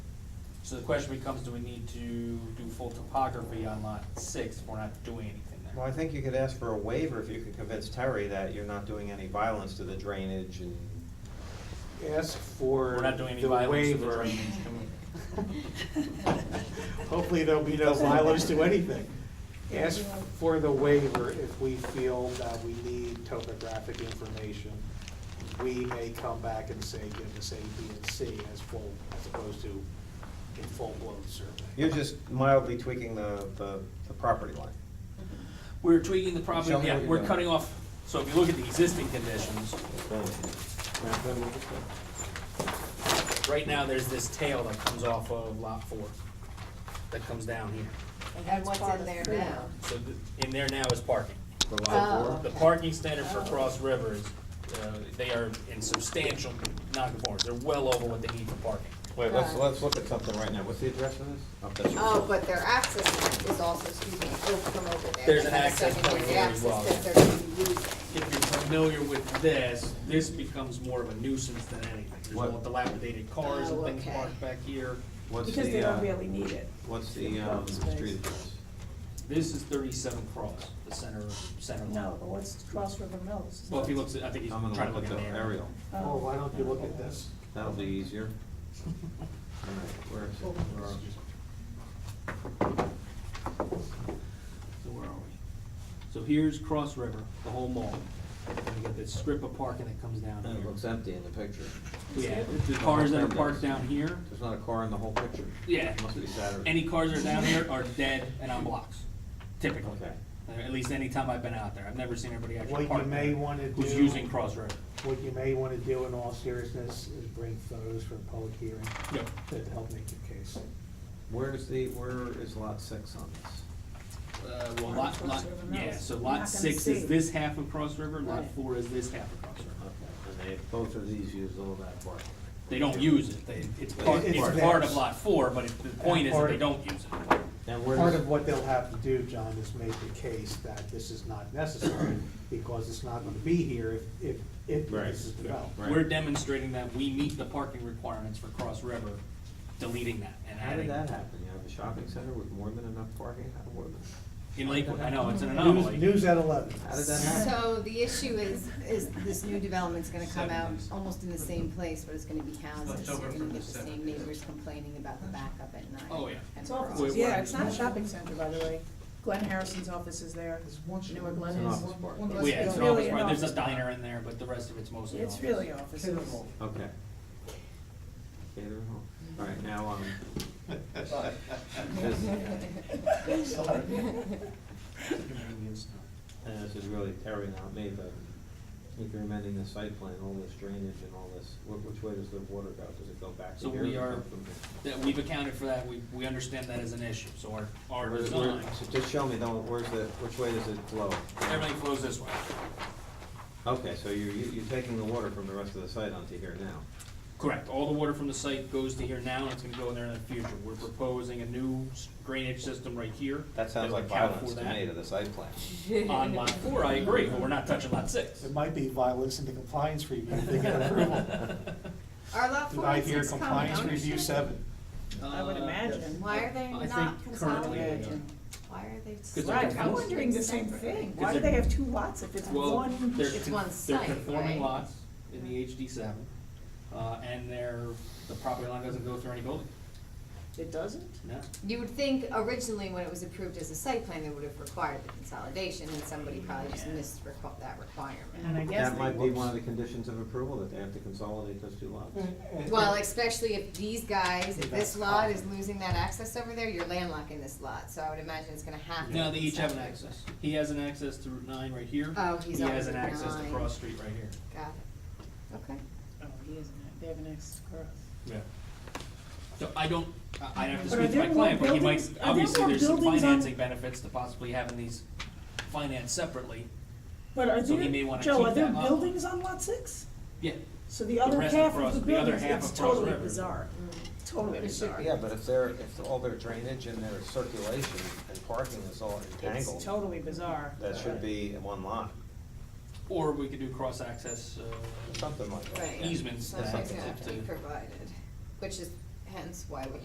So the question becomes, do we need to do full topography on lot six if we're not doing anything Well, I there? think you could ask for a waiver if you could convince Terry that you're not doing any violence to the drainage and, Ask for We're not doing any the violence to the waiver. drainage, can we? Hopefully there'll be no violence to anything. Ask for the waiver if we feel that we need topographic information. We may come back and say, give us A, B, and C as full, as opposed to a full-blown survey. you're just mildly tweaking the, the, the property line. We're tweaking the property, Show me yeah, what you're we're doing. cutting off, so if you look at the existing conditions, Oh. right now, there's this tail that comes off of lot four, that comes down here. And what's in there now? So th- in there now is parking. Oh, The okay. parking standard for Cross Rivers, uh, they are in substantial non-conformance, they're well over what they need for parking. Wait, let's- let's look at something right now. What's the address of this? Oh, but their access is also, excuse me, oh, from over there. There's They an have a access point secondary here as well, access yeah. that they're gonna be using. If you're familiar with this, this becomes more of a nuisance than anything. There's What? all dilapidated cars and Oh, things okay. parked back here. What's Because they the, don't uh, really need it. what's the, It's um, open space. street address? This is thirty-seven Cross, the center, center line. No, but what's Cross River Mills? Well, if he looks, at- I think he's I'm trying gonna to look look at in the there. aerial. Oh, why don't you look at this? That'll be easier. All right, where is it? Where are we? So where are we? So here's Cross River, the whole mall. And you got this strip of parking that comes down It looks here. empty in the picture. Yeah, the cars that are parked Looks empty. down here, There's not a car in the whole picture. yeah. Must be Saturday. Any cars that are down here are dead and on blocks, typically. Okay. Uh, At least any time I've been out there. I've never seen anybody What actually you parked may there wanna Who's do- using Cross River. What you may want to do in all seriousness is bring photos for a public hearing Yep. that help make your case. Where's the, where is lot six on this? Uh, well, lot, Cross lot, River yeah, Mills. so You're not lot gonna six see. is this half of Cross River, lot Right. four is this half of Cross River. And they, both of these use all that park. They don't use it. They, it's part, It's it's part of theirs. lot four, but it- the point is that they don't use it. And where Part does, of what they'll have to do, John, is make the case that this is not necessary because it's not going to be here if, if, if Right. this is developed. Right. We're demonstrating that we meet the parking requirements for Cross River, deleting that and how adding. did that happen? You have a shopping center with more than enough parking? How what- In Lakewood, I know, it's an News, anomaly. news at eleven. how did that happen? So the issue is, is this new development's gonna come out Seventies. almost in the same place, but it's gonna be houses. so You're gonna get the same neighbors complaining about the backup at night. Oh, yeah. and It's across. awful, Wait, yeah, what? it's not a shopping center, by the way. Glenn Harrison's office is there. You know where Glenn It's an is? office park. Well, yeah, it's an really office, an right, there's a office park. diner in there, but the rest of it's mostly office. It's really offices. Okay. Okay, they're home. All right, now, um, this, and this is really Terry, not me, but if you're amending the site plan, all this drainage and all this, wh- which way does the water go? Does it go back to So here? we or are- go from here? That, we've accounted for that, we, we understand that as an issue, so our, our Where- design, where- so Just show me though, where's the, which way does it flow? everything flows this way. Okay, so you're, you- you're taking the water from the rest of the site onto here now. Correct, all the water from the site goes to here now, and it's gonna go in there in the future. We're proposing a new drainage system right here. That sounds will like account violence for to that. me to the site plan. On lot four, I agree, but we're not touching lot six. It might be violence in the compliance review, if they get approval. Are lot Did four I and hear six common compliance review ownership? seven? I would Uh, imagine. Why are they I not think currently they are. consolidated? Why are they? they're Right, I'm confused. wondering the same thing. Why do they're- they have two lots if it's Well, one? they're, It's con- one they're site, conforming right? lots in the HD seven, uh, and their, the property line doesn't go through any building, It doesn't? no. You would think originally when it was approved as a site plan, they would have required the consolidation, and somebody probably just missed requ- And I that requirement. guess That they. might be one of the conditions of approval, that they have to consolidate those two lots. Mm-hmm. Well, especially if these guys, if That's this lot is awesome. losing that access over there, you're landlocking this lot, so I would imagine it's gonna have to. No, be they each have an consolidated. access, he has an access to Route nine right here. Oh, he's He on has an Route access to nine. Cross Street right here. Got it, okay. Oh, he isn't. They have an access to Cross. Yeah. So I don't, I- I'd have to But are speak to my there client, more but he might, buildings- are there obviously, more there's some buildings on- financing benefits to possibly having these financed separately. But are So he may wanna there, Joe, keep are there that lot. buildings on lot six? Yeah, So the other rest half across- of the the other buildings, half it's across the totally river. bizarre. Mm. Totally bizarre. Yeah, but if they're, if all their drainage and their circulation and parking is all It's entangled, totally bizarre. that should be in one lot, or we could do cross-access, uh, something like that. Right. easements Something's that gonna have to be to- provided, which is hence why we